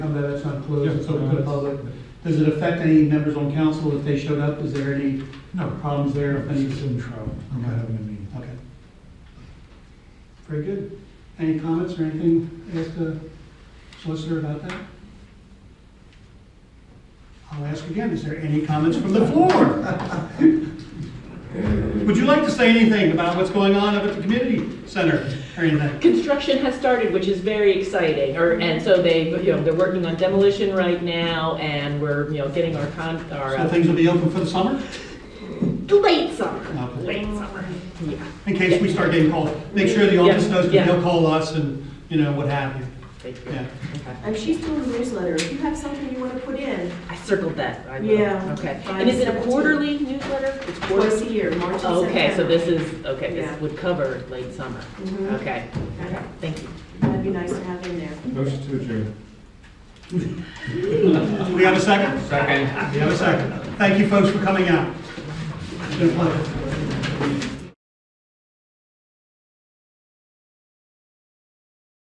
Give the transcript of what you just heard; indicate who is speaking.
Speaker 1: that's not closed, it's open to the
Speaker 2: Yeah.
Speaker 1: public. Does it affect any members on council if they showed up? Is there any
Speaker 2: No,
Speaker 1: problems there? if any-
Speaker 2: it's in trouble. I'm not having a meeting.
Speaker 1: Okay. Very good. Any comments or anything ask the solicitor about that? I'll ask again, is there any comments from the floor? Would you like to say anything about what's going on up at the community center or anything?
Speaker 3: Construction has started, which is very exciting, or, and so they, you know, they're working on demolition right now, and we're, you know, getting our con, our,
Speaker 1: So
Speaker 3: uh,
Speaker 1: things will be open for the summer?
Speaker 3: late summer,
Speaker 1: Okay.
Speaker 3: late summer, yeah,
Speaker 1: In case we start getting called, make sure the office knows,
Speaker 3: Yeah,
Speaker 1: because they'll call us and, you know, what have you.
Speaker 3: thank you.
Speaker 1: Yeah.
Speaker 3: Okay.
Speaker 4: And she's doing the newsletter. If you have something you want to put in,
Speaker 3: I circled that, I know.
Speaker 4: Yeah.
Speaker 3: Okay, and is it a quarterly newsletter? It's
Speaker 4: twice
Speaker 3: quarterly?
Speaker 4: a year, March and September.
Speaker 3: Okay, so this is, okay,
Speaker 4: Yeah.
Speaker 3: this would cover late summer,
Speaker 4: Mhm.
Speaker 3: okay,
Speaker 4: Okay.
Speaker 3: thank you.
Speaker 4: That'd be nice to have in there.
Speaker 5: Motion to adjourn.
Speaker 1: Do we have a second?
Speaker 5: Second.
Speaker 1: We have a second. Thank you, folks, for coming out. It's been a pleasure.